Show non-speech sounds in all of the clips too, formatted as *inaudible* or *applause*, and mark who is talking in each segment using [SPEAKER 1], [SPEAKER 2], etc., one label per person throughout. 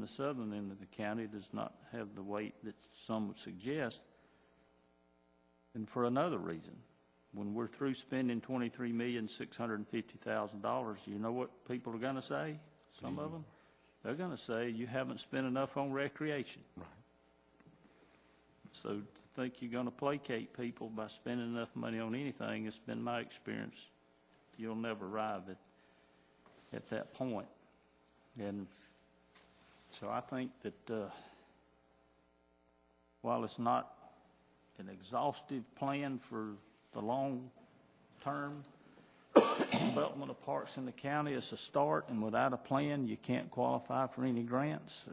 [SPEAKER 1] the southern end of the county does not have the weight that some would suggest, and for another reason. When we're through spending twenty-three million, six hundred and fifty thousand dollars, you know what people are gonna say? Some of them? They're gonna say, you haven't spent enough on recreation.
[SPEAKER 2] Right.
[SPEAKER 1] So to think you're gonna placate people by spending enough money on anything, it's been my experience, you'll never arrive at, at that point. And so I think that, uh, while it's not an exhaustive plan for the long-term development of parks in the county, it's a start, and without a plan, you can't qualify for any grants. So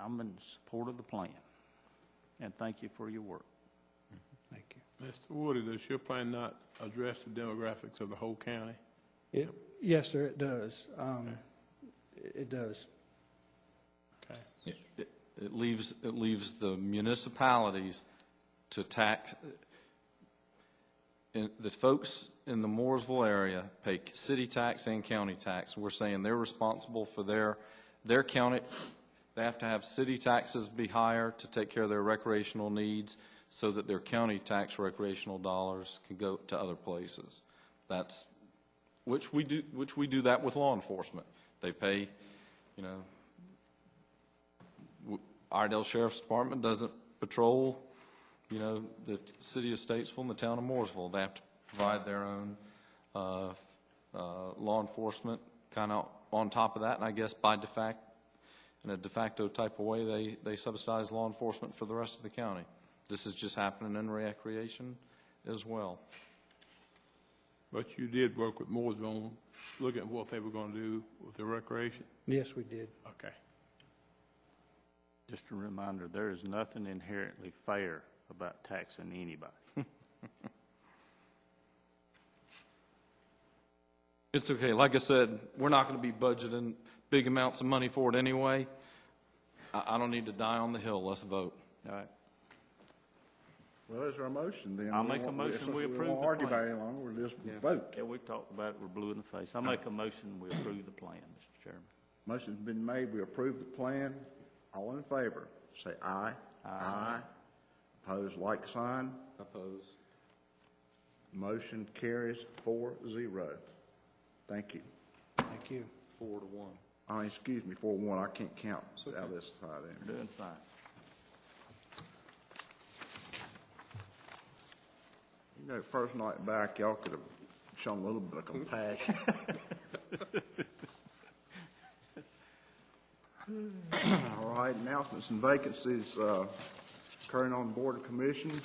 [SPEAKER 1] I'm in support of the plan, and thank you for your work.
[SPEAKER 3] Thank you.
[SPEAKER 4] Mr. Woody, does your plan not address the demographics of the whole county?
[SPEAKER 3] It, yes, sir, it does. Um, it it does.
[SPEAKER 4] Okay.
[SPEAKER 5] It- It it leaves, it leaves the municipalities to tax, and the folks in the Mooresville area pay city tax and county tax. We're saying they're responsible for their, their county, they have to have city taxes be higher to take care of their recreational needs so that their county tax recreational dollars can go to other places. That's, which we do, which we do that with law enforcement. They pay, you know, Iredell Sheriff's Department doesn't patrol, you know, the t- city of Statesville and the town of Mooresville. They have to provide their own uh, f- uh, law enforcement, kind of on top of that, and I guess by de facto, in a de facto type of way, they, they subsidize law enforcement for the rest of the county. This is just happening in recreation as well.
[SPEAKER 4] But you did work with Mooresville, on looking at what they were going to do with the recreation?
[SPEAKER 3] Yes, we did.
[SPEAKER 4] Okay.
[SPEAKER 1] Just a reminder, there is nothing inherently fair about taxing anybody.
[SPEAKER 5] It's okay. Like I said, we're not going to be budgeting big amounts of money for it anyway. I, I don't need to die on the hill. Let's vote.
[SPEAKER 1] *laughs* All right,
[SPEAKER 2] Well, is there a motion then?
[SPEAKER 1] I'll
[SPEAKER 2] We
[SPEAKER 1] make a
[SPEAKER 2] won't-
[SPEAKER 1] motion, we approve
[SPEAKER 2] We won't
[SPEAKER 1] the
[SPEAKER 2] argue
[SPEAKER 1] plan.
[SPEAKER 2] about it any longer, we'll just vote.
[SPEAKER 1] yeah, we've talked about it, we're blue in the face. I make a motion, we approve the plan, Mr. Chairman.
[SPEAKER 2] Motion's been made, we approve the plan. All in favor, say aye. Aye. Opposed, like sign.
[SPEAKER 5] Oppose.
[SPEAKER 2] Motion carries four zero. Thank you.
[SPEAKER 3] Thank you.
[SPEAKER 5] Four to one.
[SPEAKER 2] Oh, excuse me, four one, I can't count
[SPEAKER 5] okay.
[SPEAKER 2] out of this side in.
[SPEAKER 1] You're doing fine.
[SPEAKER 2] You know, first night back, y'all could have shown a little bit of compassion. All right, announcements and vacancies uh, occurring on board of commissions.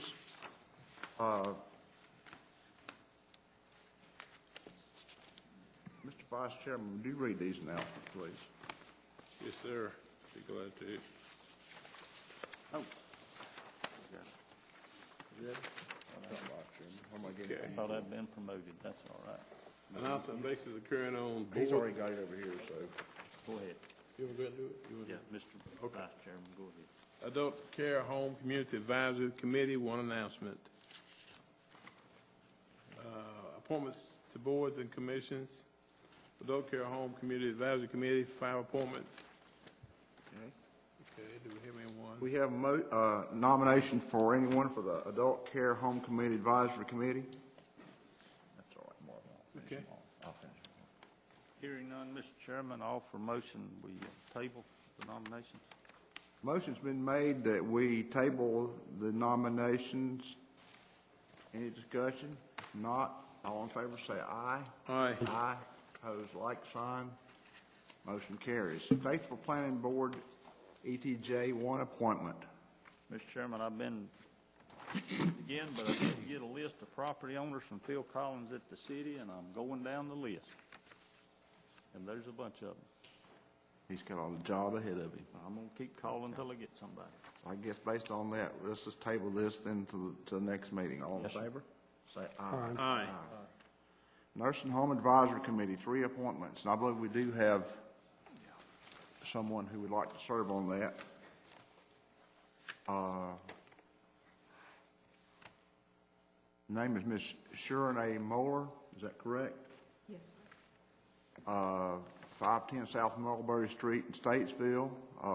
[SPEAKER 2] Uh, Mr. Vice Chairman, would you read these announcements, please?
[SPEAKER 4] Yes, sir. Be glad to.
[SPEAKER 1] Oh,
[SPEAKER 4] Okay.
[SPEAKER 1] I thought I'd been promoted, that's all right.
[SPEAKER 4] Announcement basis occurring on boards.
[SPEAKER 2] He's already got it over here, so.
[SPEAKER 1] Go ahead.
[SPEAKER 4] You want to go ahead and do it? You wanna do
[SPEAKER 1] Yeah,
[SPEAKER 4] it?
[SPEAKER 1] Mr. Vice Chairman, go ahead.
[SPEAKER 4] Adult Care Home Community Advisory Committee, one announcement. Uh, Appointments to boards and commissions. Adult Care Home Community Advisory Committee, five appointments.
[SPEAKER 2] Okay.
[SPEAKER 4] Okay, do we have anyone?
[SPEAKER 2] We have a mo- uh, nomination for anyone for the Adult Care Home Committee Advisory Committee? That's all right, Marvin. I'll finish
[SPEAKER 4] Okay.
[SPEAKER 2] them all. I'll finish them all.
[SPEAKER 1] Hearing none, Mr. Chairman, all for motion, we table the nominations.
[SPEAKER 2] Motion's been made that we table the nominations. Any discussion? Not, all in favor say aye.
[SPEAKER 4] Aye.
[SPEAKER 2] Aye, opposed, like sign. Motion carries. Statesville Planning Board, ETJ, one appointment.
[SPEAKER 1] Mr. Chairman, I've been, again, but I did get a list of property owners from Phil Collins at the city, and I'm going down the list. And there's a bunch of them.
[SPEAKER 2] He's got a job ahead of him.
[SPEAKER 1] I'm gonna keep calling till I get somebody.
[SPEAKER 2] I guess based on that, let's just table this then to, the- to the next meeting. All in
[SPEAKER 1] Yes, sir.
[SPEAKER 2] favor? Say aye.
[SPEAKER 3] Aye.
[SPEAKER 4] Aye.
[SPEAKER 2] Nursing Home Advisory Committee, three appointments, and I believe we do have someone who would like to serve on that. Uh, Name is Ms. Sharon A. Moeller, is that correct?
[SPEAKER 6] Yes, sir.
[SPEAKER 2] Uh, 510 South Mulberry Street in Statesville. Uh,